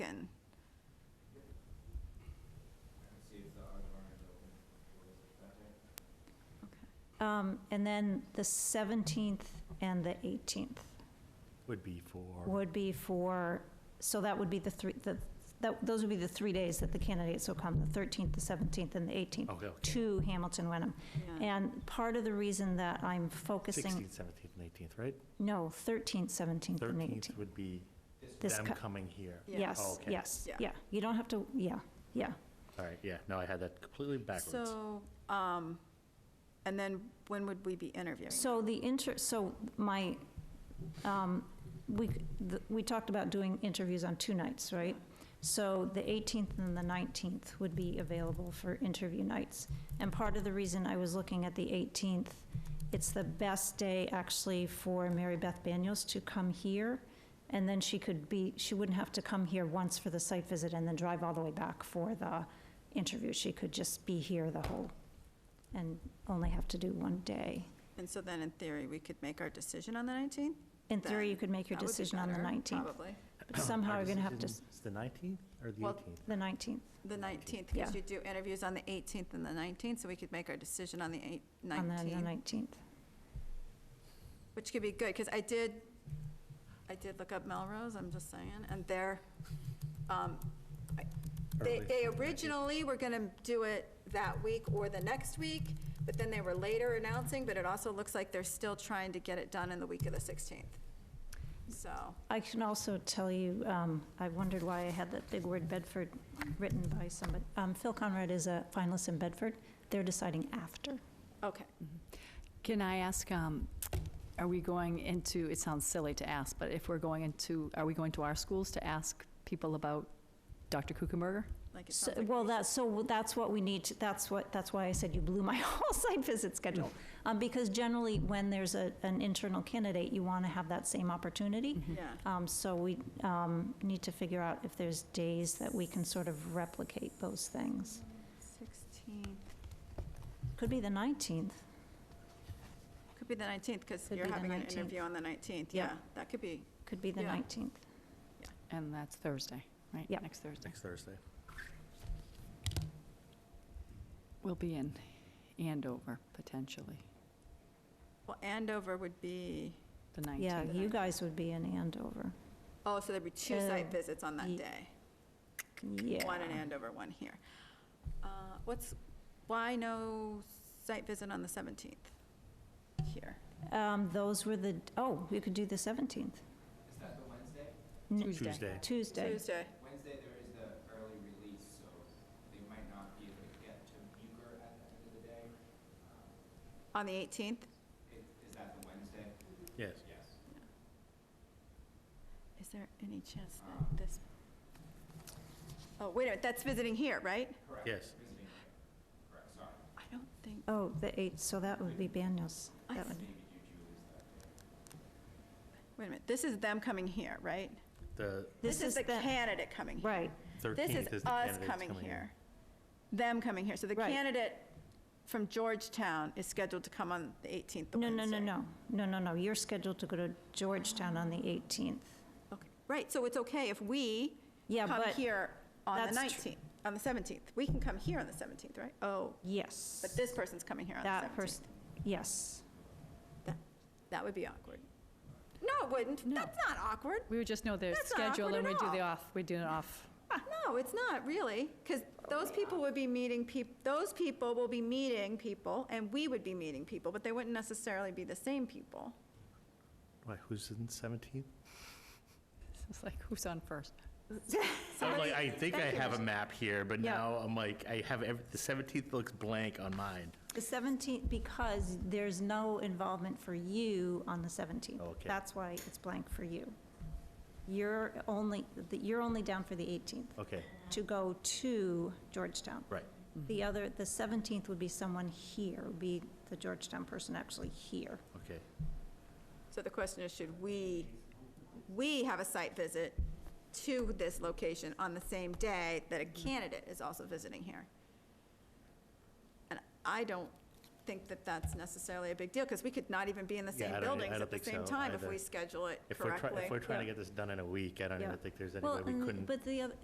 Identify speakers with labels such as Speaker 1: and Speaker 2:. Speaker 1: Um, And then the 17th and the 18th
Speaker 2: Would be for,
Speaker 1: would be for, so that would be the three, the- that- those would be the three days that the candidates will come, the 13th, the 17th, and the 18th,
Speaker 2: oh, okay, okay.
Speaker 1: to Hamilton Wenham. And part of the reason that I'm
Speaker 2: 16th,
Speaker 1: focusing,
Speaker 2: 17th, and 18th, right?
Speaker 1: no, 13th, 17th, and
Speaker 2: 13th
Speaker 1: 18th.
Speaker 2: would be
Speaker 1: This
Speaker 2: them
Speaker 1: co-
Speaker 2: coming here.
Speaker 1: Yes,
Speaker 2: okay.
Speaker 1: yes,
Speaker 3: Yeah.
Speaker 1: yeah. You don't have to, yeah, yeah.
Speaker 2: All right, yeah, no, I had that completely backwards.
Speaker 3: So, um, and then when would we be interviewing?
Speaker 1: So the inter, so my, um, we, the- we talked about doing interviews on two nights, right? So the 18th and the 19th would be available for interview nights. And part of the reason I was looking at the 18th, it's the best day actually for Mary Beth Daniels to come here. And then she could be, she wouldn't have to come here once for the site visit and then drive all the way back for the interview. She could just be here the whole, and only have to do one day.
Speaker 3: And so then in theory, we could make our decision on the 19th?
Speaker 1: In theory, you
Speaker 3: then
Speaker 1: could make your
Speaker 3: That would be
Speaker 1: decision on the
Speaker 3: better,
Speaker 1: 19th,
Speaker 3: Probably.
Speaker 1: but somehow
Speaker 2: Our
Speaker 1: you're going to have to,
Speaker 2: decision is the 19th or the
Speaker 3: Well,
Speaker 2: 18th?
Speaker 1: the 19th.
Speaker 3: The 19th,
Speaker 1: Yeah.
Speaker 3: because you do interviews on the 18th and the 19th, so we could make our decision on the eight-
Speaker 1: On the
Speaker 3: 19th,
Speaker 1: 19th.
Speaker 3: which could be good, because I did, I did look up Melrose, I'm just saying, and they're, um, I- they,
Speaker 2: Early
Speaker 3: they
Speaker 2: Sunday.
Speaker 3: originally were going to do it that week or the next week, but then they were later announcing, but it also looks like they're still trying to get it done in the week of the 16th. So,
Speaker 1: I can also tell you, um, I wondered why I had that big word Bedford written by somebody. Um, Phil Conrad is a finalist in Bedford. They're deciding after.
Speaker 3: okay.
Speaker 4: Can I ask, um, are we going into, it sounds silly to ask, but if we're going into, are we going to our schools to ask people about Dr. Kuchenberger?
Speaker 3: Like it
Speaker 1: So,
Speaker 3: sounds like
Speaker 1: well, that's, so that's what we need, to- that's what, that's why I said you blew my whole site visit schedule. Um, because generally, when there's a, an internal candidate, you want to have that same opportunity.
Speaker 3: Yeah,
Speaker 1: Um, So we um, need to figure out if there's days that we can sort of replicate those things.
Speaker 3: 16,
Speaker 1: Could be the 19th.
Speaker 3: could be the 19th, because
Speaker 1: Could
Speaker 3: you're
Speaker 1: be the
Speaker 3: having an
Speaker 1: 19th.
Speaker 3: interview on the 19th,
Speaker 1: Yeah.
Speaker 3: yeah, that could be,
Speaker 1: Could be the
Speaker 3: Yeah.
Speaker 1: 19th.
Speaker 4: And that's Thursday, right?
Speaker 1: Yeah.
Speaker 4: Next Thursday.
Speaker 2: Next Thursday.
Speaker 4: We'll be in Andover, potentially,
Speaker 3: well, Andover would be,
Speaker 4: the
Speaker 1: Yeah,
Speaker 4: 19th.
Speaker 1: you guys would be in Andover.
Speaker 3: oh, so there'd be two site
Speaker 1: Uh,
Speaker 3: visits on that
Speaker 1: ye-
Speaker 3: day.
Speaker 1: Yeah.
Speaker 3: One in Andover, one here. Uh, What's, why no site visit on the 17th here?
Speaker 1: Um, Those were the, oh, we could do the 17th. Is that the
Speaker 4: Tuesday.
Speaker 2: Tuesday.
Speaker 1: Tuesday.
Speaker 3: Tuesday.
Speaker 5: Wednesday, there is the early release, so they might not be able to get to Bucher at the end of the day. Um,
Speaker 3: On the 18th?
Speaker 5: It- Is that the Wednesday?
Speaker 2: Yes.
Speaker 5: Yes.
Speaker 3: Is there any chance
Speaker 5: Um,
Speaker 3: that this, oh, wait a minute, that's visiting here, right?
Speaker 5: Correct.
Speaker 2: Yes.
Speaker 5: Visiting, correct, sorry.
Speaker 3: I don't think,
Speaker 1: Oh, the 8th, so that would be Banyas.
Speaker 3: I
Speaker 1: That would-
Speaker 5: Maybe do Julie's that day.
Speaker 3: wait a minute, this is them coming here, right?
Speaker 2: The
Speaker 3: This is the candidate coming here.
Speaker 1: Right,
Speaker 3: This
Speaker 2: 13th
Speaker 3: is
Speaker 2: is the
Speaker 3: us
Speaker 2: candidates
Speaker 3: coming
Speaker 2: in.
Speaker 3: here. Them coming here. So the
Speaker 1: Right.
Speaker 3: candidate from Georgetown is scheduled to come on the 18th, the
Speaker 1: no, no, no,
Speaker 3: Wednesday.
Speaker 1: no, no, no, no, you're scheduled to go to Georgetown on the 18th.
Speaker 3: Okay. Right, so it's okay if we
Speaker 1: Yeah,
Speaker 3: come
Speaker 1: but,
Speaker 3: here on the
Speaker 1: that's tr-
Speaker 3: 19th, on the 17th. We can come here on the 17th, right? Oh,
Speaker 1: yes.
Speaker 3: but this person's coming here on
Speaker 1: That
Speaker 3: the 17th.
Speaker 1: person, yes.
Speaker 3: That would be awkward. No, it wouldn't.
Speaker 4: No.
Speaker 3: That's not awkward.
Speaker 4: We would just know their
Speaker 3: That's not
Speaker 4: schedule
Speaker 3: awkward
Speaker 4: and we
Speaker 3: at
Speaker 4: do the
Speaker 3: all.
Speaker 4: off, we do it off.
Speaker 3: No, it's not really, because those people would be meeting people, those people will be meeting people, and we would be meeting people, but they wouldn't necessarily be the same people.
Speaker 2: Why, who's in 17th?
Speaker 4: It's like, who's on first?
Speaker 2: I'm like,
Speaker 3: Somebody-
Speaker 2: I think I
Speaker 3: thank you,
Speaker 2: have a
Speaker 3: Mr.
Speaker 2: map here, but
Speaker 1: Yeah.
Speaker 2: now I'm like, I have, every- the 17th looks blank on mine.
Speaker 1: The 17th, because there's no involvement for you on the 17th.
Speaker 2: Okay.
Speaker 1: That's why it's blank for you. You're only, the- you're only down for the 18th
Speaker 2: Okay,
Speaker 1: to go to Georgetown.
Speaker 2: right.
Speaker 1: The other, the 17th would be someone here, would be the Georgetown person actually here.
Speaker 2: Okay.
Speaker 3: So the question is, should we, we have a site visit to this location on the same day that a candidate is also visiting here? And I don't think that that's necessarily a big deal, because we could not even be in the
Speaker 2: Yeah, I
Speaker 3: same
Speaker 2: don't- e-, I
Speaker 3: buildings
Speaker 2: don't
Speaker 3: at the
Speaker 2: think
Speaker 3: same
Speaker 2: so
Speaker 3: time if
Speaker 2: either.
Speaker 3: we schedule it
Speaker 2: If we're, try-
Speaker 3: correctly.
Speaker 2: if we're trying to get this done in a week, I don't
Speaker 1: Yeah.
Speaker 2: even think there's any
Speaker 1: Well,
Speaker 2: way we
Speaker 1: and-
Speaker 2: couldn't.
Speaker 1: But the other,